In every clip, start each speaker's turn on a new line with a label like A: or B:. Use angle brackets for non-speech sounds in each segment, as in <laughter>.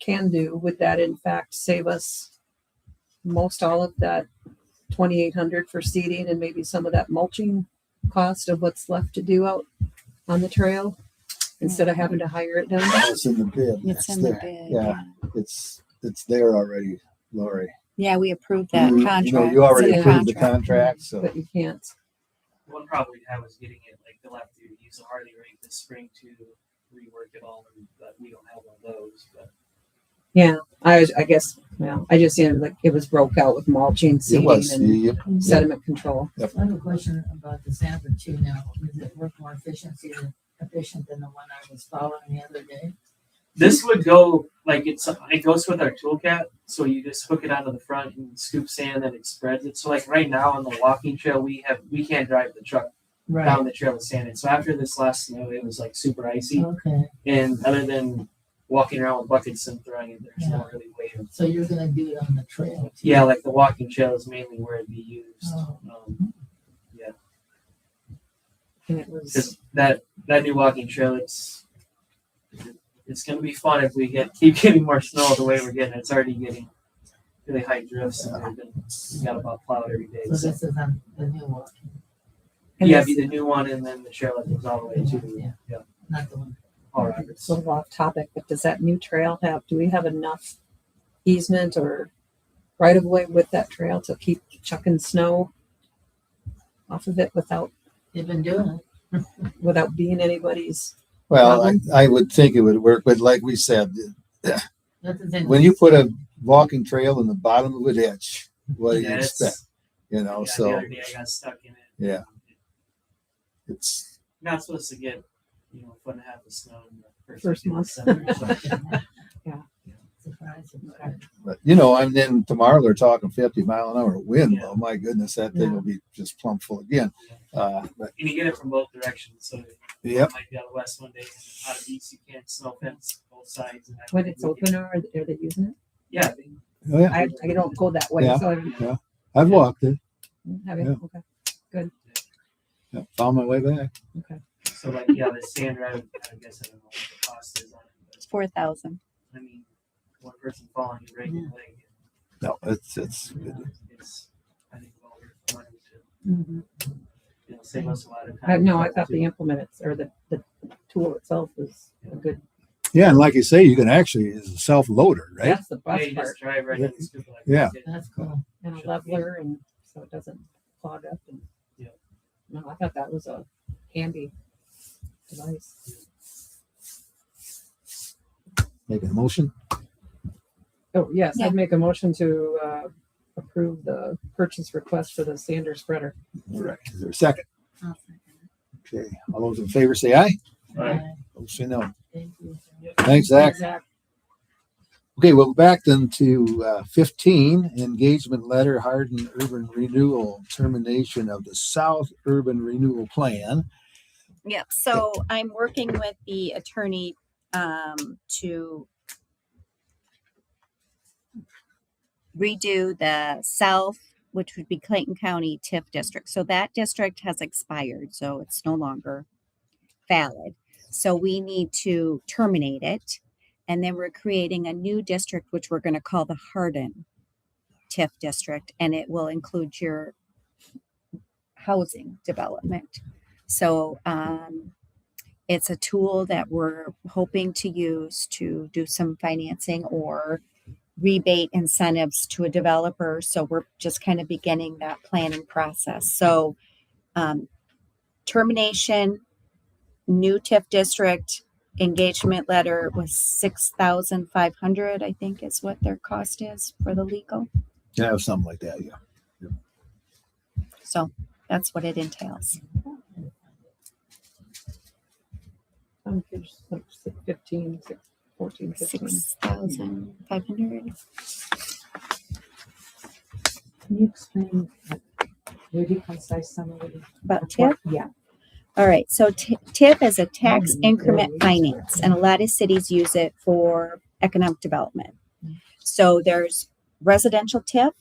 A: can do, would that in fact save us most all of that twenty-eight hundred for seeding and maybe some of that mulching cost of what's left to do out on the trail? Instead of having to hire it done?
B: It's in the bid.
C: It's in the
B: there.
C: bid.
B: Yeah, it's, it's there already, Lori.
C: Yeah, we approved that
B: You- you know,
C: contract.
B: You
C: It's
B: already
C: in
B: approved the contract, so
A: But you can't.
D: One problem we have is getting it, like, they'll have to use a Harley rig this spring to rework it all, and- but we don't have one of those, but.
A: Yeah, I was, I guess, well, I just, ended like, it was broke out with mulching,
B: it
A: seeding
B: was,
A: and
B: you-
A: sediment control.
E: I have a question about the sample too now. Does it work more efficiency than efficient than the one I was following the other day?
D: This would go like it's it goes with our toolcat, so you just hook it onto the front and scoop sand and it spreads it. So like right now on the walking trail, we have we can't drive the truck down the trail with sand. And so after this last snow, it was like super icy.
E: Okay,
D: And other than walking around with buckets and throwing it, there's not really way of
E: so you're gonna do it on the trail? too?
D: yeah. Like the walking trail is mainly where it'd be used
E: Oh.
D: um,
A: And it was,
D: 'cause that that new walking trail it's it's gonna be fun if we get keep <laughs> getting more snow the way we're getting. It's already getting really high drifts and they've been we got about plowed every day.
E: So
D: So.
E: this is on the new one,
A: and
D: yeah,
A: this-
D: be the new one, and then the trail that goes all the way
E: Yeah.
D: to yeah,
E: not the one.
D: Paul Roberts.
A: it's a little off topic, but does that new trail have, do we have enough easement or right of way with that trail to keep chucking snow off of it without,
E: They've been doing it.
A: without being anybody's?
B: well, I, I would think it would work, but like we said,
E: That's the thing.
B: when you
E: <laughs>
B: put a walking trail in the bottom of a ditch, what do you
D: Yeah, it's-
B: expect? You know,
D: yeah, the
B: so
D: other day I got stuck in it.
B: Yeah. it's,
D: Not supposed to get, you know, foot and a half of snow in the first,
A: First
D: week of
A: month.
D: December, so-
E: Surprise, surprise.
B: but, you know, and then tomorrow they're talking fifty mile an hour wind.
D: Yeah.
B: Oh my goodness, that thing will be just plump full again. Uh, but
D: and you get it from both directions. So
B: Yep.
D: it might be out west one day, and out of east you can't snow fence both sides. And I
A: When
D: think
A: it's
D: we can-
A: open or are they- are they using it?
D: yeah, they-
B: oh, yeah,
A: I, I don't go that way,
B: Yeah.
A: so I don't
B: I've walked it,
A: have it,
B: Yeah.
A: okay.
B: Yeah, found my way back.
D: so like yeah, the sand drive. I guess I don't know what the cost is on it,
C: Four thousand.
D: but I mean, one person falling, you break your leg.
B: No, it's, it's,
D: It's, I think, well worth money to you know, save us a lot of time.
A: Mm-hmm. I, no, I thought the implements or the, the tool itself was a good,
F: Yeah, and like you say, you can actually it's a self loader, right?
A: that's the
D: Yeah,
A: best
D: you
A: part.
D: just drive right in and scoop it like
F: Yeah.
D: this.
E: That's cool.
A: and a
D: Should
A: leveler and so it doesn't clog up and.
D: Yeah.
A: No, I thought that was a handy device.
B: making a motion.
A: Oh, yes,
C: Yeah.
A: I'd make a motion to, uh, approve the purchase request for the sander spreader.
B: All right, is there a second?
E: I'll second it.
B: Okay, all those in favor say aye.
D: Alright.
E: Bye.
B: Those say no.
E: Thank you.
B: Thanks, Zach.
A: Exact-
B: Okay, we'll go back then to uh, fifteen, engagement letter, Hardin Urban Renewal, termination of the South Urban Renewal Plan.
C: Yep. So I'm working with the attorney um, to redo the south, which would be Clayton County TIF district. So that district has expired, so it's no longer valid. So we need to terminate it. And then we're creating a new district, which we're going to call the Hardin TIF district, and it will include your housing development. So um, it's a tool that we're hoping to use to do some financing or rebate incentives to a developer. So we're just kind of beginning that planning process. So um, termination, new TIF district engagement letter was six thousand five hundred, I think is what their cost is for the legal.
B: Yeah, something like that, yeah.
C: So that's what it entails.
A: on page six- Fifteen, six- fourteen, fifteen.
C: Six thousand five hundred.
G: Can you explain uh, like, really concise summary?
C: About
G: of
C: TIF?
G: what- Yeah.
C: All right, so T- TIF is a tax
G: Mhm.
C: increment finance, and a lot of cities use it for economic development. So there's residential TIF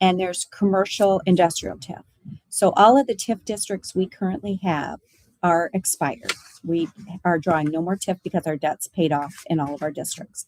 C: and there's commercial industrial TIF. So all of the TIF districts we currently have are expired. We are drawing no more TIF because our debt's paid off in all of our districts.